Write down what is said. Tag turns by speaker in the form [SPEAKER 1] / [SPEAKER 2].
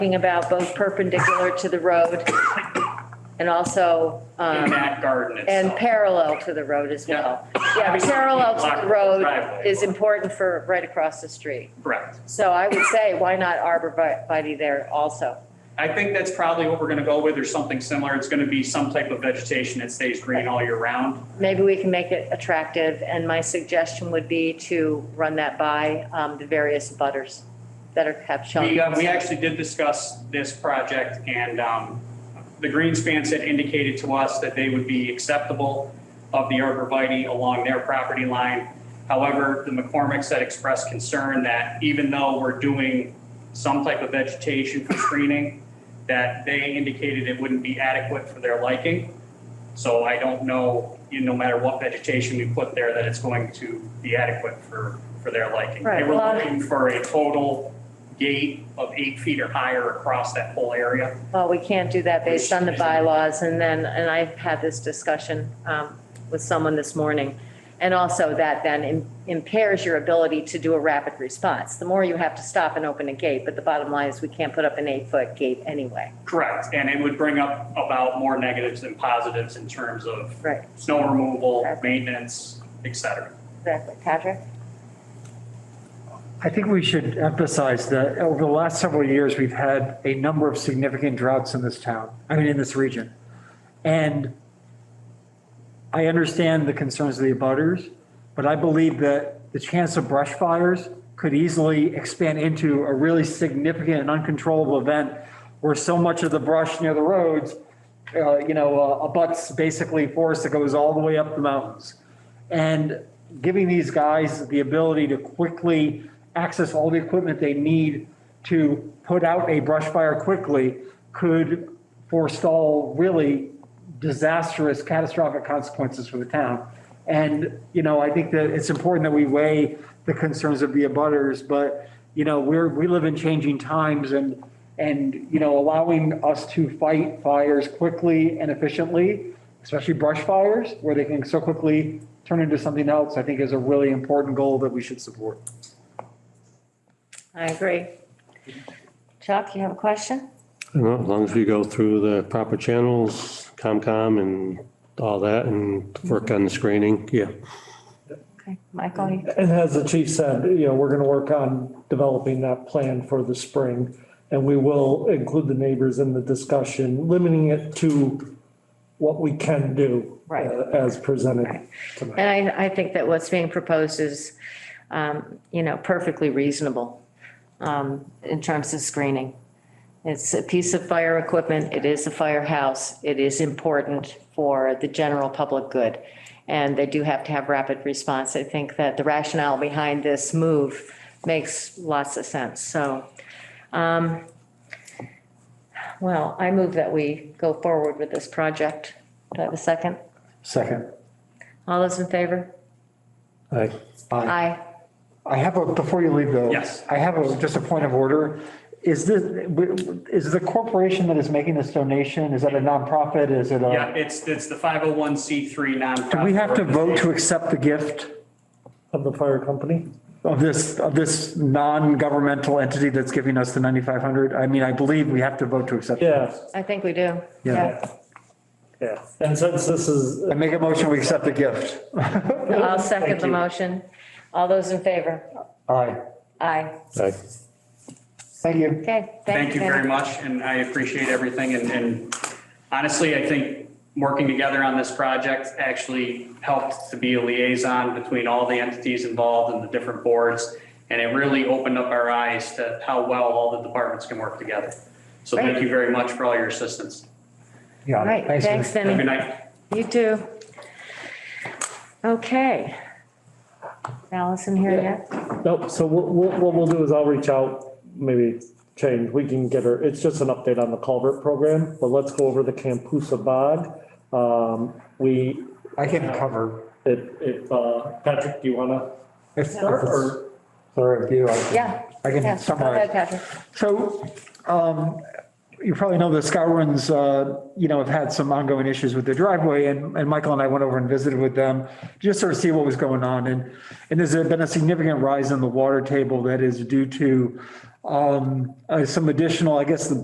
[SPEAKER 1] talking about both perpendicular to the road and also,
[SPEAKER 2] in
[SPEAKER 1] um,
[SPEAKER 2] that garden
[SPEAKER 1] and
[SPEAKER 2] itself.
[SPEAKER 1] parallel to the road as well. Yeah,
[SPEAKER 2] Obviously,
[SPEAKER 1] parallel to
[SPEAKER 2] block
[SPEAKER 1] the
[SPEAKER 2] the
[SPEAKER 1] road
[SPEAKER 2] driveway.
[SPEAKER 1] is important for right across the street.
[SPEAKER 2] Correct.
[SPEAKER 1] So I would say, why not arborvitae there also?
[SPEAKER 2] I think that's probably what we're going to go with or something similar. It's going to be some type of vegetation that stays green all year round.
[SPEAKER 1] Maybe we can make it attractive, and my suggestion would be to run that by um, the various butters that are, have shown.
[SPEAKER 2] We, uh, we actually did discuss this project and, um, the Greenspan had indicated to us that they would be acceptable of the arborvitae along their property line. However, the McCormicks had expressed concern that even though we're doing some type of vegetation for screening, that they indicated it wouldn't be adequate for their liking. So I don't know, you know, no matter what vegetation we put there, that it's going to be adequate for, for their liking. They
[SPEAKER 1] Right,
[SPEAKER 2] were
[SPEAKER 1] well-
[SPEAKER 2] looking for a total gate of eight feet or higher across that whole area.
[SPEAKER 1] Well, we can't do that based on the bylaws, and then, and I've had this discussion um, with someone this morning. And also that then im- impairs your ability to do a rapid response. The more you have to stop and open a gate, but the bottom line is we can't put up an eight-foot gate anyway.
[SPEAKER 2] Correct, and it would bring up about more negatives than positives in terms of
[SPEAKER 1] Right,
[SPEAKER 2] snow removal,
[SPEAKER 1] Correct.
[SPEAKER 2] maintenance, et cetera.
[SPEAKER 1] exactly. Patrick?
[SPEAKER 3] I think we should emphasize that over the last several years, we've had a number of significant droughts in this town, I mean, in this region. And I understand the concerns of the abutters, but I believe that the chance of brush fires could easily expand into a really significant and uncontrollable event where so much of the brush near the roads, uh, you know, uh, abuts basically forest that goes all the way up the mountains. And giving these guys the ability to quickly access all the equipment they need to put out a brush fire quickly could forestall really disastrous, catastrophic consequences for the town. And, you know, I think that it's important that we weigh the concerns of the abutters, but, you know, we're, we live in changing times and, and, you know, allowing us to fight fires quickly and efficiently, especially brush fires, where they can so quickly turn into something else, I think is a really important goal that we should support.
[SPEAKER 1] I agree. Chuck, you have a question?
[SPEAKER 4] Well, as long as we go through the proper channels, COMCOM and all that and work on the screening, yeah.
[SPEAKER 1] Okay, Michael? you-
[SPEAKER 5] And as the chief said, you know, we're gonna work on developing that plan for the spring. And we will include the neighbors in the discussion, limiting it to what we can do.
[SPEAKER 1] Right.
[SPEAKER 5] uh, As presented
[SPEAKER 1] Right.
[SPEAKER 5] tonight.
[SPEAKER 1] And I, I think that what's being proposed is, um, you know, perfectly reasonable um, in terms of screening. It's a piece of fire equipment, it is a firehouse, it is important for the general public good. And they do have to have rapid response. I think that the rationale behind this move makes lots of sense, so. um, Well, I move that we go forward with this project. Do I have a second?
[SPEAKER 3] Second.
[SPEAKER 1] All those in favor?
[SPEAKER 4] I,
[SPEAKER 3] Aye.
[SPEAKER 1] Aye.
[SPEAKER 3] I have a, before you leave though.
[SPEAKER 2] Yes.
[SPEAKER 3] I have a, just a point of order. Is this, is the corporation that is making this donation, is that a nonprofit? Is it a?
[SPEAKER 2] Yeah, it's, it's the 501c3 nonprofit.
[SPEAKER 3] Do we have to vote to
[SPEAKER 2] organization.
[SPEAKER 3] accept the gift
[SPEAKER 5] Of the fire company?
[SPEAKER 3] of this, of this non-governmental entity that's giving us the 9,500? I mean, I believe we have to vote to accept. it.
[SPEAKER 5] Yeah,
[SPEAKER 1] I think we do.
[SPEAKER 3] Yeah.
[SPEAKER 5] yeah. And since this is,
[SPEAKER 3] I make a motion, we accept the gift.
[SPEAKER 1] Yeah. I'll second
[SPEAKER 5] Thank
[SPEAKER 1] the
[SPEAKER 5] you.
[SPEAKER 1] motion. All those in favor?
[SPEAKER 3] Aye.
[SPEAKER 1] Aye.
[SPEAKER 4] I,
[SPEAKER 3] Thank you.
[SPEAKER 1] Okay.
[SPEAKER 2] Thank you very
[SPEAKER 1] Kevin.
[SPEAKER 2] much, and I appreciate everything, and, and honestly, I think working together on this project actually helped to be a liaison between all the entities involved and the different boards, and it really opened up our eyes to how well all the departments can work together. So thank you very much for all your assistance.
[SPEAKER 3] Yeah.
[SPEAKER 1] All right, thanks,
[SPEAKER 2] Have a good
[SPEAKER 1] Vinnie.
[SPEAKER 2] night.
[SPEAKER 1] You too. Okay. Allison here yet?
[SPEAKER 5] nope, so what, what, what we'll do is I'll reach out, maybe change, we can get her, it's just an update on the culvert program, but let's go over the Campusa bog. Um, we,
[SPEAKER 3] I can cover.
[SPEAKER 5] if, if, uh, Patrick, do you wanna?
[SPEAKER 3] If if
[SPEAKER 5] start,
[SPEAKER 3] it's
[SPEAKER 5] or-
[SPEAKER 3] for review, I can-
[SPEAKER 1] Yeah.
[SPEAKER 3] I
[SPEAKER 1] Yeah.
[SPEAKER 3] can
[SPEAKER 1] Go
[SPEAKER 3] summarize.
[SPEAKER 1] ahead, Patrick.
[SPEAKER 3] So, um, you probably know the Scowrons, uh, you know, have had some ongoing issues with their driveway and, and Michael and I went over and visited with them, just sort of see what was going on. And, and there's been a significant rise in the water table that is due to, Um, uh, Some additional, I guess the